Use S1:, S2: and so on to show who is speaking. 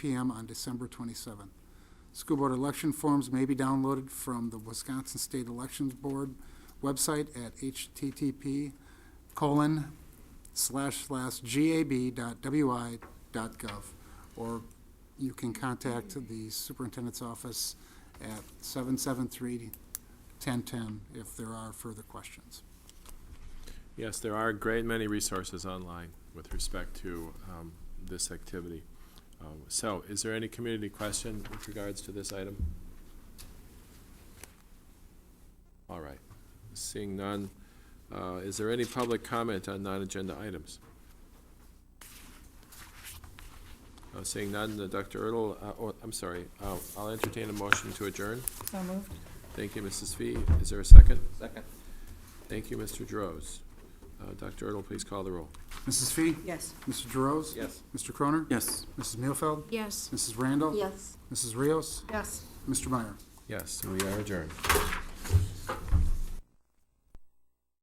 S1: PM on December 27. School board election forms may be downloaded from the Wisconsin State Elections Board website at http colon slash slash gab dot wi dot gov. Or you can contact the superintendent's office at 773-1010 if there are further questions.
S2: Yes, there are a great many resources online with respect to um, this activity. Um, So is there any community question with regards to this item? All right, seeing none, uh, is there any public comment on non-agenda items? Uh, Seeing none, uh, Dr. Erdl, uh, or, I'm sorry, uh, I'll entertain a motion to adjourn.
S3: So moved.
S2: Thank you, Mrs. Fee. Is there a second?
S4: Second.
S2: Thank you, Mr. Droz. Uh, Dr. Erdl, please call the roll.
S1: Mrs. Fee?
S3: Yes.
S1: Mr. Droz?
S4: Yes.
S1: Mr. Croner?
S4: Yes.
S1: Mrs. Muehlfeld?
S5: Yes.
S1: Mrs. Randall?
S5: Yes.
S1: Mrs. Rios?
S3: Yes.
S1: Mr. Meyer?
S2: Yes, we are adjourned.